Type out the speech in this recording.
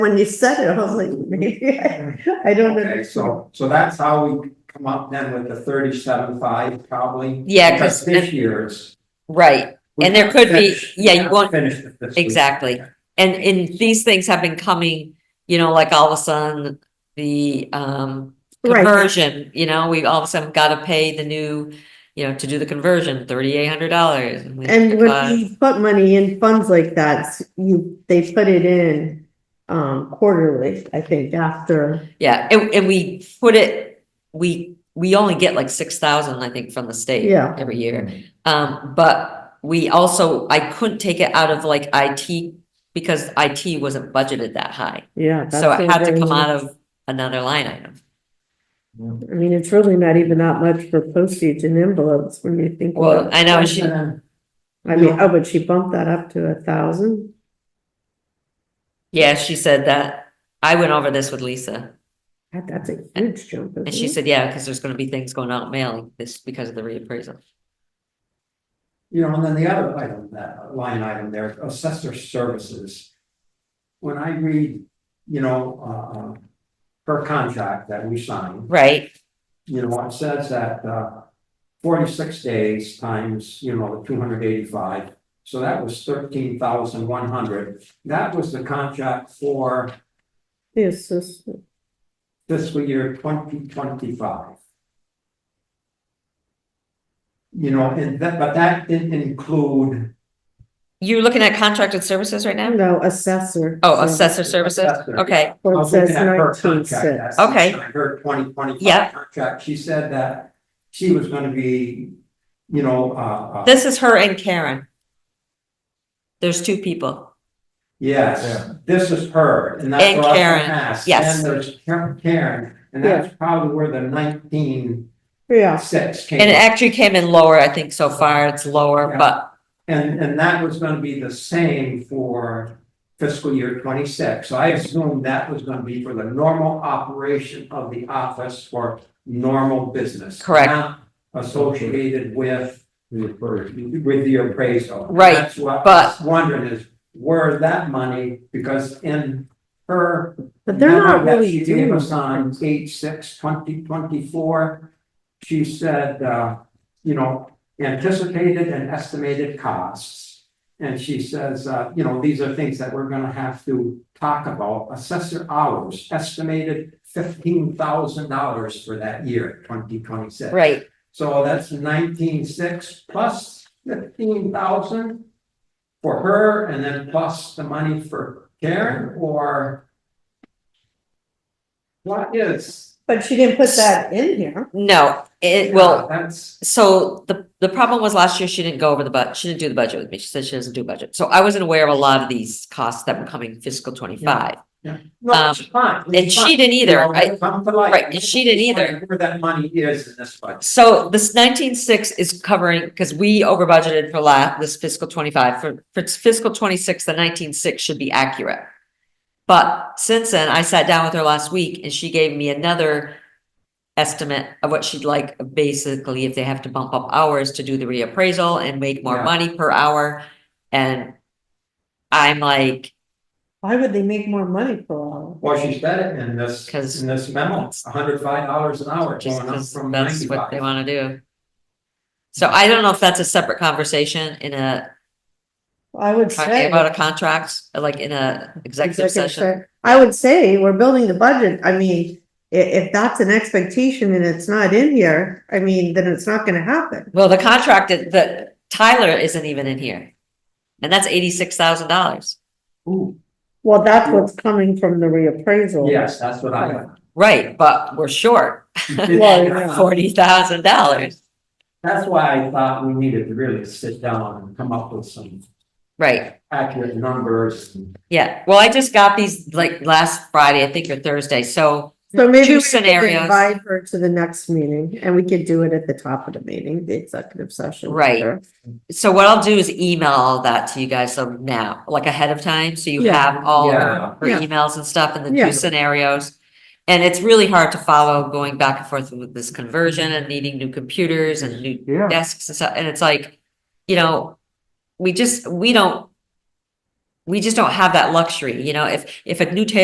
When you said it, I was like, maybe I Mm-hmm. I don't Okay, know. so, so that's how we come up then with the thirty-seven five probably. Yeah, 'cause- This year's. Right, we And there can't could be- finish- yeah, you can't won't- Finish it this week. exactly. and, and these things have been coming, you know, like all of a sudden, the, um, Right. conversion, you know, we all of a sudden gotta pay the new, you know, to do the conversion, thirty-eight hundred dollars. And when you put money in funds like that, you, they put it in um quarterly, I think, after. Yeah, and, and we put it, we, we only get like six thousand, I think, from the state. Yeah. Every year, um, but we also, I couldn't take it out of like IT, because IT wasn't budgeted that high. Yeah. So it had to come out of another line item. I mean, it's really not even that much for postage and envelopes when you think. Well, about it. I uh, know she, I mean, oh, but she bumped that up to a thousand. yeah, she said that, I went over this with Lisa, That- That's a huge jump. and she said, yeah, because there's gonna be things going out mailing this because of the reappraisal. You know, and then the other item, that line item there, assessor services. When I read, you know, uh, uh, her contract that we signed, Right, you know, it says that, uh, forty-six days times, you know, two hundred eighty-five, so that was thirteen thousand one hundred. That was the contract for Yes, this, fiscal year twenty twenty-five. You know, and that, but that didn't include you're looking at contracted services right now? no, assessor. Oh, So- assessor services, Assessor. okay. Well, I it was looking says at her nineteen contract, six. that's- Okay. Her twenty Yeah. twenty-five contract, she said that she was gonna be, you know, uh, uh, This is her and Karen. There's two people. yes, this is her, and that's And what I was gonna Karen, ask. yes. And there's Karen- Karen, and Yeah. that's probably where the nineteen Yeah, six came. And it actually came in lower, I think so far it's lower, Yeah. but And, and that was gonna be the same for fiscal year twenty-six, so I assumed that was gonna be for the normal operation of the office for normal business. Correct. not Associated with, with the appraisal. Right, That's what I but- was wondering is, where that money, because in her. but they're not memo that really She gave doing. us on eight, six, twenty, twenty-four, she said, uh, you know, anticipated and estimated costs. And she says, uh, you know, these are things that we're gonna have to talk about, assessor hours, estimated fifteen thousand dollars for that year, twenty twenty-six. right, So that's nineteen six plus fifteen thousand for her and then plus the money for Karen or what is? But she didn't put that in here. no, it, well, That's, so the, the problem was last year she didn't go over the budget. she didn't do the budget with me, she said she doesn't do budget. So I wasn't aware of a lot of these costs that were coming fiscal twenty-five, no, it's fine. it's um, and she fine, didn't you either, know, right? Come to light. Right, and she didn't either. Where that money is in this budget. So this nineteen-six is covering, because we over budgeted for la, this fiscal twenty-five, for, for fiscal twenty-six, the nineteen-six should be accurate. But since then, I sat down with her last week and she gave me another estimate of what she'd like, basically, if they have to bump up hours to do the reappraisal and make more Yeah. money per hour. And I'm like, Why would they make more money for all? Well, she said it in this, 'Cause in this memo, that's- hundred five dollars an hour just going up 'cause from that's what ninety-five. they wanna do. So I don't know if that's a separate conversation in a I would talking say. about a contract, like in a executive session. se- I would say we're building the budget. I mean, i- if that's an expectation and it's not in here, I mean, then it's not gonna happen. Well, the contract that- that Tyler isn't even in here. And that's eighty-six thousand dollars. Ooh, Well, that's what's coming from the reappraisal. Yes, that's what I. Right, but we're short Well, yeah. forty thousand dollars. That's why I thought we needed to really sit down and come up with some Right, accurate numbers. yeah. Well, I just got these like last Friday, I think, or Thursday, so, So maybe Two we could scenarios. invite her to the next meeting and we could do it at the top of the meeting, the executive session. Right. Sure. so what I'll do is email all that to you guys so now, like ahead of time, so you Yeah. have all Yeah. her her Yeah. emails and stuff and the Yeah. two scenarios. And it's really hard to follow going back and forth with this conversion and needing new computers and new Yeah. desks and stuff, and it's like, you know, we just, we don't. We just don't have that luxury, you know, if if a new table